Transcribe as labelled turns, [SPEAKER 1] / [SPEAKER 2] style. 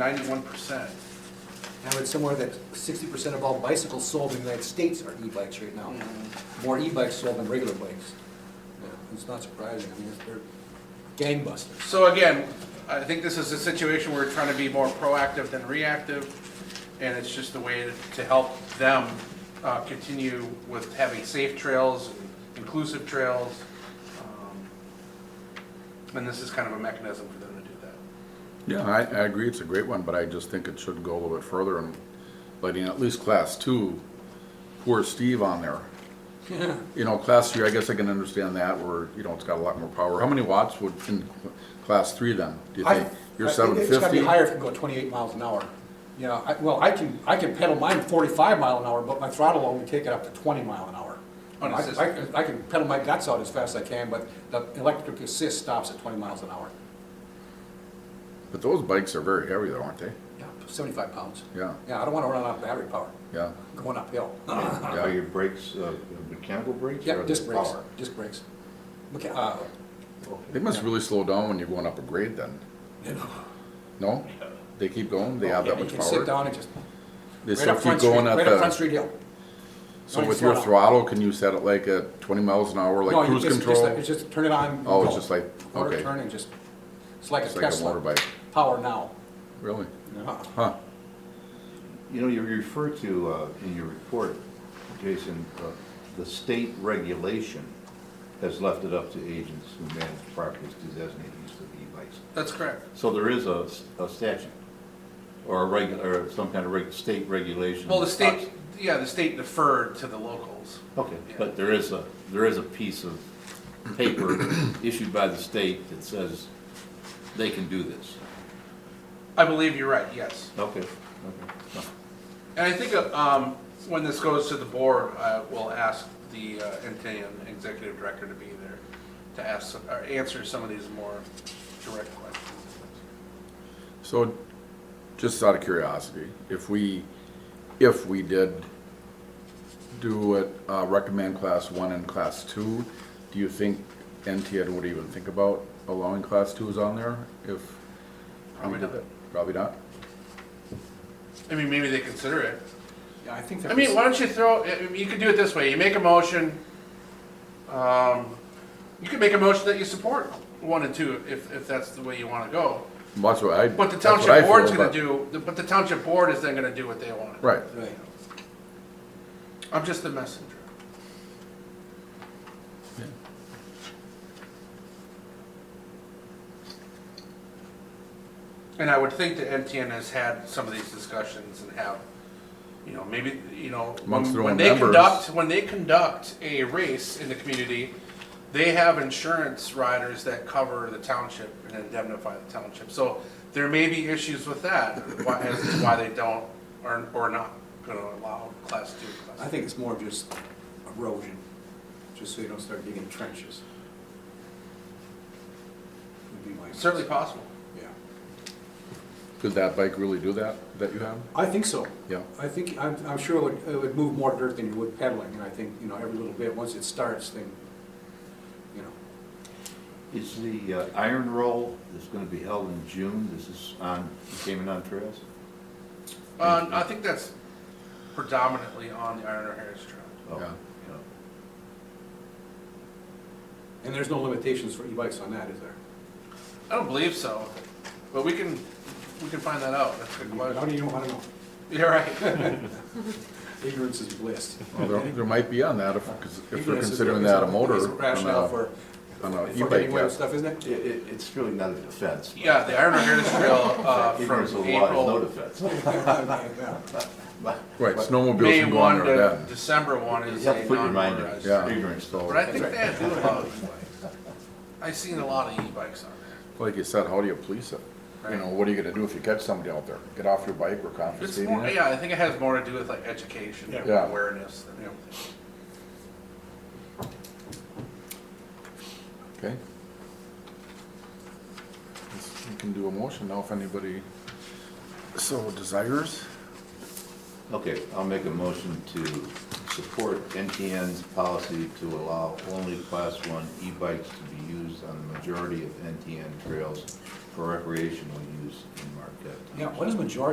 [SPEAKER 1] ninety-one percent.
[SPEAKER 2] I read somewhere that sixty percent of all bicycles sold in the United States are e-bikes right now. More e-bikes sold than regular bikes. Yeah, It's not surprising, I mean, they're gangbusters.
[SPEAKER 1] So again, I think this is a situation where we're trying to be more proactive than reactive, and it's just a way to- to help them uh, continue with having safe trails, inclusive trails. um, And this is kind of a mechanism for them to do that.
[SPEAKER 3] Yeah, I, I agree, it's a great one, but I just think it should go a little bit further and letting at least class two, poor Steve on there. You know, class three, I guess I can understand that, where, you know, it's got a lot more power. How many watts would, in class three then, do you
[SPEAKER 2] I-
[SPEAKER 3] think? You're
[SPEAKER 2] I think
[SPEAKER 3] seven
[SPEAKER 2] It's gotta be
[SPEAKER 3] fifty?
[SPEAKER 2] higher if you can go twenty-eight miles an hour. You know, I, well, I can, I can pedal mine forty-five mile an hour, but my throttle only take it up to twenty mile an hour.
[SPEAKER 1] On
[SPEAKER 2] I-
[SPEAKER 1] assist.
[SPEAKER 2] I, can- I can pedal my guts out as fast as I can, but the electric assist stops at twenty miles an hour.
[SPEAKER 3] But those bikes are very heavy though, aren't they?
[SPEAKER 2] Yeah, seventy-five pounds.
[SPEAKER 3] Yeah,
[SPEAKER 2] Yeah, I don't wanna run out of battery power
[SPEAKER 3] yeah,
[SPEAKER 2] going uphill.
[SPEAKER 3] yeah.
[SPEAKER 4] Are your brakes, uh, mechanical brakes?
[SPEAKER 2] Yeah,
[SPEAKER 4] or
[SPEAKER 2] disc
[SPEAKER 4] the
[SPEAKER 2] brakes,
[SPEAKER 4] power?
[SPEAKER 2] disc brakes. Okay, uh,
[SPEAKER 3] They must really slow down when you're going up a grade then. No? They keep going, they have that
[SPEAKER 2] you
[SPEAKER 3] much
[SPEAKER 2] can sit
[SPEAKER 3] power?
[SPEAKER 2] down and just,
[SPEAKER 3] They
[SPEAKER 2] right
[SPEAKER 3] still
[SPEAKER 2] up
[SPEAKER 3] keep
[SPEAKER 2] Front Street,
[SPEAKER 3] going at
[SPEAKER 2] right up Front
[SPEAKER 3] the,
[SPEAKER 2] Street Hill.
[SPEAKER 3] so
[SPEAKER 2] No,
[SPEAKER 3] with
[SPEAKER 2] it's
[SPEAKER 3] your
[SPEAKER 2] slow.
[SPEAKER 3] throttle, can you set it like at twenty miles an hour,
[SPEAKER 2] No,
[SPEAKER 3] like
[SPEAKER 2] you
[SPEAKER 3] cruise
[SPEAKER 2] just- just-
[SPEAKER 3] control?
[SPEAKER 2] It's just turn it on.
[SPEAKER 3] Oh, it's
[SPEAKER 2] go.
[SPEAKER 3] just like,
[SPEAKER 2] Quarter
[SPEAKER 3] okay.
[SPEAKER 2] turn and just, it's like a
[SPEAKER 3] It's like a
[SPEAKER 2] Tesla,
[SPEAKER 3] motorbike.
[SPEAKER 2] power now.
[SPEAKER 3] Really?
[SPEAKER 2] Uh-huh.
[SPEAKER 3] Huh?
[SPEAKER 4] You know, you refer to, uh, in your report, Jason, uh, the state regulation has left it up to agents who manage properties to designate use of e-bikes.
[SPEAKER 1] That's correct.
[SPEAKER 4] So there is a s- a statute or a reg, or some kind of reg, state regulation.
[SPEAKER 1] Well, the state, yeah, the state deferred to the locals.
[SPEAKER 4] Uh, Okay, but there is a, there is a piece of paper issued by the state that says they can do this.
[SPEAKER 1] I believe you're right, yes.
[SPEAKER 4] Okay, okay.
[SPEAKER 1] And I think, uh, um, when this goes to the board, I will ask the, uh, Intanon executive director to be there to ask, some- or answer some of these more direct questions.
[SPEAKER 3] So, just out of curiosity, if we, if we did do it, uh, recommend class one and class two, do you think NTN would even think about allowing class twos on there if?
[SPEAKER 1] Probably not.
[SPEAKER 3] Probably not?
[SPEAKER 1] I mean, maybe they consider it.
[SPEAKER 2] Yeah, I think
[SPEAKER 1] I
[SPEAKER 2] that
[SPEAKER 1] mean, why
[SPEAKER 2] was,
[SPEAKER 1] don't you throw, I- I mean, you could do it this way, you make a motion, um, you could make a motion that you support one and two, if, if that's the way you wanna go.
[SPEAKER 3] Well, That's what I.
[SPEAKER 1] But the
[SPEAKER 3] that's what I
[SPEAKER 1] township
[SPEAKER 3] feel,
[SPEAKER 1] board's gonna
[SPEAKER 3] but-
[SPEAKER 1] do, but the township board is then gonna do what they want.
[SPEAKER 3] Right,
[SPEAKER 2] right,
[SPEAKER 1] I'm just the messenger. And I would think that MTN has had some of these discussions and have, you know, maybe, you know, when
[SPEAKER 3] Amongst their
[SPEAKER 1] when
[SPEAKER 3] own
[SPEAKER 1] they
[SPEAKER 3] members.
[SPEAKER 1] conduct, when they conduct a race in the community, they have insurance riders that cover the township and indemnify the township. So there may be issues with that, why- as to why they don't, or, or not gonna allow class two, class
[SPEAKER 5] I think it's more of just erosion, just so you don't start digging trenches. Would be my guess.
[SPEAKER 1] Certainly possible.
[SPEAKER 5] Yeah,
[SPEAKER 3] could that bike really do that, that you have?
[SPEAKER 2] I think so.
[SPEAKER 3] Yeah.
[SPEAKER 2] I think, I'm, I'm sure it would, it would move more dirt than you would pedaling, and I think, you know, every little bit, once it starts, then, you know,
[SPEAKER 4] Is the uh, Iron Roll that's going to be held in June, this is on Cayman on Trails?
[SPEAKER 1] Uh, I think that's predominantly on the Iron or Harris Trail.
[SPEAKER 4] Oh,
[SPEAKER 3] Yeah.
[SPEAKER 4] yeah.
[SPEAKER 2] and there's no limitations for e-bikes on that, is there?
[SPEAKER 1] I don't believe so, but we can, we can find that out. That's a good
[SPEAKER 2] How
[SPEAKER 1] question.
[SPEAKER 2] do you know, I don't know,
[SPEAKER 1] You're right.
[SPEAKER 2] ignorance is bliss.
[SPEAKER 3] Well, there, there might be on that if, 'cause if they're
[SPEAKER 2] Ignorance is-
[SPEAKER 3] considering
[SPEAKER 2] is
[SPEAKER 3] that a
[SPEAKER 2] is
[SPEAKER 3] motor.
[SPEAKER 2] Rationale
[SPEAKER 3] on a-
[SPEAKER 2] for,
[SPEAKER 3] on a
[SPEAKER 2] for
[SPEAKER 3] e-bike,
[SPEAKER 2] getting away
[SPEAKER 3] yeah.
[SPEAKER 2] with stuff, isn't it?
[SPEAKER 4] It, it- it's really not a defense. but-
[SPEAKER 1] Yeah, the Iron or Harris Trail, uh,
[SPEAKER 4] Ignorance of
[SPEAKER 1] from
[SPEAKER 4] the law is no
[SPEAKER 1] April,
[SPEAKER 4] defense.
[SPEAKER 2] Yeah.
[SPEAKER 4] But-
[SPEAKER 3] Right, snowmobiles
[SPEAKER 1] May
[SPEAKER 3] can go on
[SPEAKER 1] one
[SPEAKER 3] there
[SPEAKER 1] to
[SPEAKER 3] then.
[SPEAKER 1] December one
[SPEAKER 4] You
[SPEAKER 1] is
[SPEAKER 4] have to
[SPEAKER 1] a
[SPEAKER 4] put your mind
[SPEAKER 1] non-motorized.
[SPEAKER 3] Yeah.
[SPEAKER 4] at it, ignorance,
[SPEAKER 1] But
[SPEAKER 4] so.
[SPEAKER 1] I think they do allow e-bikes. I've seen a lot of e-bikes on there.
[SPEAKER 3] Like you said, how do you police it? You know, what are you gonna do if you catch somebody out there? Get off your bike, we're
[SPEAKER 1] It's
[SPEAKER 3] confiscating
[SPEAKER 1] more,
[SPEAKER 3] it?
[SPEAKER 1] yeah, I think it has more to do with like education, and
[SPEAKER 3] Yeah.
[SPEAKER 1] awareness than anything.
[SPEAKER 3] Okay. Let's- You can do a motion now if anybody so desires.
[SPEAKER 4] Okay, I'll make a motion to support NTN's policy to allow only class one e-bikes to be used on the majority of NTN trails for recreational use in Marquette.
[SPEAKER 2] Yeah, what is majority